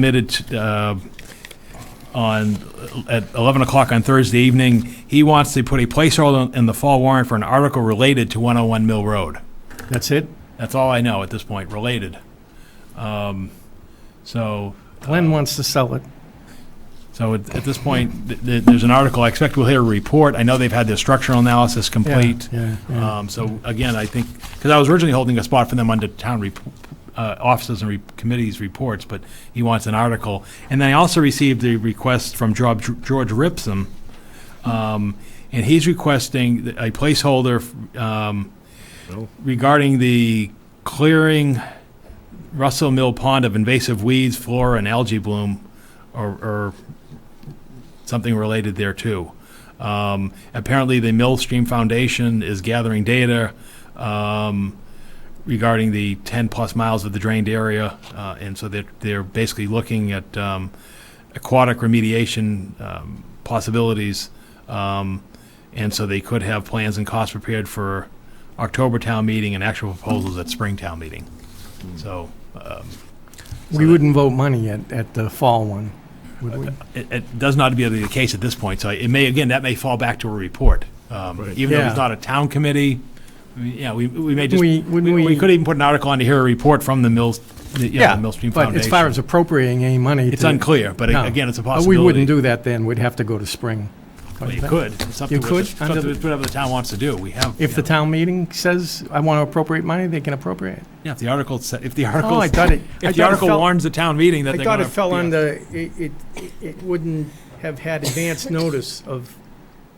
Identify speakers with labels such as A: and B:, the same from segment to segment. A: submitted uh, on, at 11 o'clock on Thursday evening. He wants to put a placeholder in the fall warrant for an article related to 101 Mill Road.
B: That's it?
A: That's all I know at this point, related. Um, So,
B: Glenn wants to sell it.
A: so at at this point, th- th- there's an article, I expect we'll hear a report. I know they've had their structural analysis complete.
B: Yeah, yeah.
A: Um, So again, I think, because I was originally holding a spot for them under town rep- uh, offices and re- committees reports, but he wants an article. And then I also received a request from George George Ripsum, um, and he's requesting th- a placeholder um, regarding the clearing Russell Mill Pond of invasive weeds, flora, and algae bloom, or- or something related there too. Um, apparently, the Millstream Foundation is gathering data um, regarding the 10 plus miles of the drained area, uh, and so they're, they're basically looking at um, aquatic remediation um, possibilities, um, and so they could have plans and costs prepared for October town meeting and actual proposals at spring town meeting. So. Um, so
B: We
A: that-
B: wouldn't vote money at, at the fall one, would we?
A: it, it does not be the case at this point, so it may, again, that may fall back to a report. Um,
C: Right.
A: Even though it's
B: Yeah.
A: not a town committee, I mean, yeah, we, we may just, we
B: We, wouldn't we?
A: we could even put an article on to hear a report from the Mills, the, you know, the Millstream
B: But as far
A: Foundation.
B: as appropriating any money.
A: It's
B: to-
A: unclear, but
B: No.
A: again, it's a
B: Uh,
A: possibility.
B: We wouldn't do that then, we'd have to go to spring.
A: Well, You could. It's up to
B: You
A: what
B: could,
A: the-
B: under
A: It's up to
B: the-
A: whatever the town wants to do. We have.
B: If
A: you
B: the
A: know,
B: town meeting says, I want to appropriate money, they can appropriate.
A: Yeah, if the article, sa- if the
B: Oh,
A: article,
B: I thought it. I
A: if the
B: thought it
A: article
B: fell-
A: warns the town meeting that
B: I
A: they're
B: thought
A: gonna.
B: it fell
A: yeah.
B: under, it, it, it wouldn't have had advance notice of,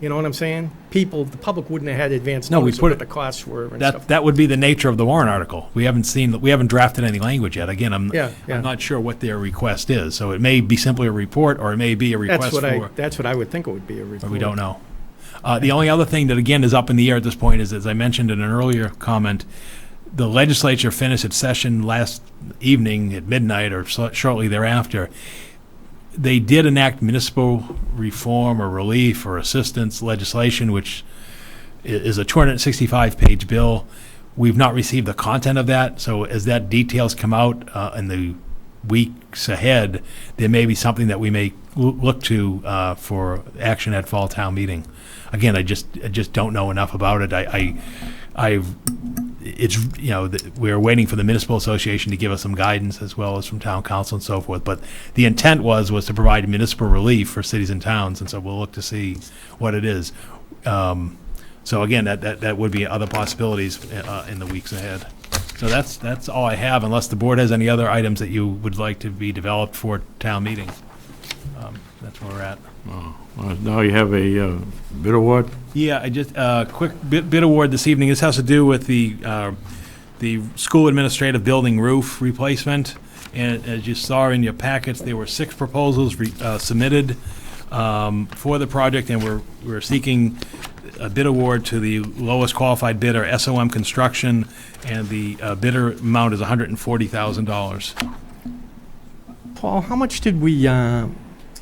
B: you know what I'm saying? People, the public wouldn't have had advance
A: No, we
B: notice of
A: put
B: what
A: it-
B: the costs were and stuff.
A: That, that would be the nature of the warrant article. We haven't seen, we haven't drafted any language yet. Again, I'm,
B: Yeah,
A: I'm
B: yeah,
A: not sure what their request is, so it may be simply a report, or it may be a
B: that's
A: request
B: what I,
A: for,
B: that's what I would think it would be a report.
A: but we don't know. Uh, The only other thing that, again, is up in the air at this point is, as I mentioned in an earlier comment, the legislature finished its session last evening at midnight or so- shortly thereafter. They did enact municipal reform or relief or assistance legislation, which i- is a 265-page bill. We've not received the content of that, so as that details come out uh, in the weeks ahead, there may be something that we may loo- look to uh, for action at fall town meeting. Again, I just, I just don't know enough about it. I, I, I've- it's, you know, th- we're waiting for the municipal association to give us some guidance as well as from town council and so forth. But the intent was, was to provide municipal relief for cities and towns, and so we'll look to see what it is. Um, So again, that, that, that would be other possibilities uh, in the weeks ahead. So that's, that's all I have, unless the board has any other items that you would like to be developed for town meeting. Um, That's where we're at.
C: Uh, Now you have a uh, bid award?
A: Yeah, I just, uh, quick bid, bid award this evening. This has to do with the, uh, the school administrative building roof replacement. And as you saw in your packets, there were six proposals re- uh, submitted um, for the project, and we're, we're seeking a bid award to the lowest qualified bidder, SOM Construction, and the uh, bidder amount is $140,000.
B: Paul, how much did we, uh,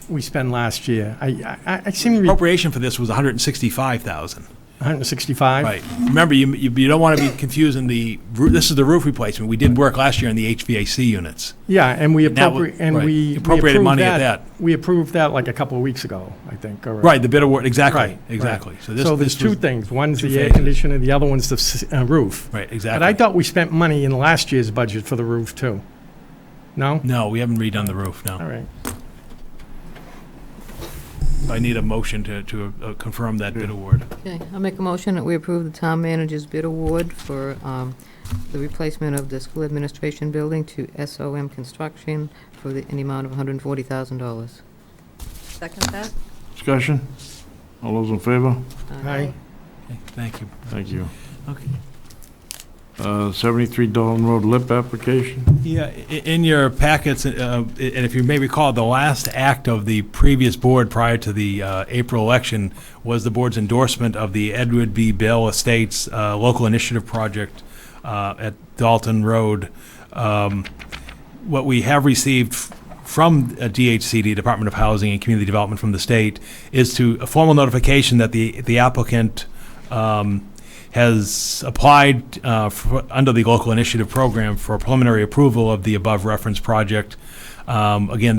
B: we spend last year? I, I, I seem to be
A: Appropriation for this was $165,000.
B: 165?
A: Right. Remember, you, you you don't want to be confusing the, roo- this is the roof replacement. We did work last year on the HVAC units.
B: Yeah, and we
A: And that was-
B: appropriate, and
A: right.
B: we. we
A: Appropriated
B: approved
A: money at that.
B: We approved that like a couple of weeks ago, I think, or.
A: Right, the bid award, exactly,
B: Right,
A: exactly. So this,
B: So there's
A: this
B: two
A: was,
B: things. One's
A: two
B: the air
A: phases.
B: conditioner, the other one's the s- uh, roof.
A: right,
B: But I
A: exactly.
B: thought we spent money in last year's budget for the roof, too. No?
A: No, we haven't redone the roof,
B: All
A: no.
B: right.
A: I need a motion to, to uh, confirm that bid award.
D: Okay, I'll make a motion that we approve the town manager's bid award for um, the replacement of the school administration building to SOM Construction for the, an amount of $140,000.
E: Second that?
C: Discussion? All those in favor?
B: Aye.
A: Okay, Thank you.
C: Thank you.
A: Okay.
C: Uh, 73 Dalton Road lip application?
A: Yeah, i- in your packets, uh, and if you may recall, the last act of the previous board prior to the uh, April election was the board's endorsement of the Edward B. Bell Estates uh, Local Initiative Project uh, at Dalton Road. Um, What we have received f- from uh, DHCD, Department of Housing and Community Development from the state, is to, a formal notification that the the applicant um, has applied uh, for- under the local initiative program for preliminary approval of the above referenced project. Um, Um, Again,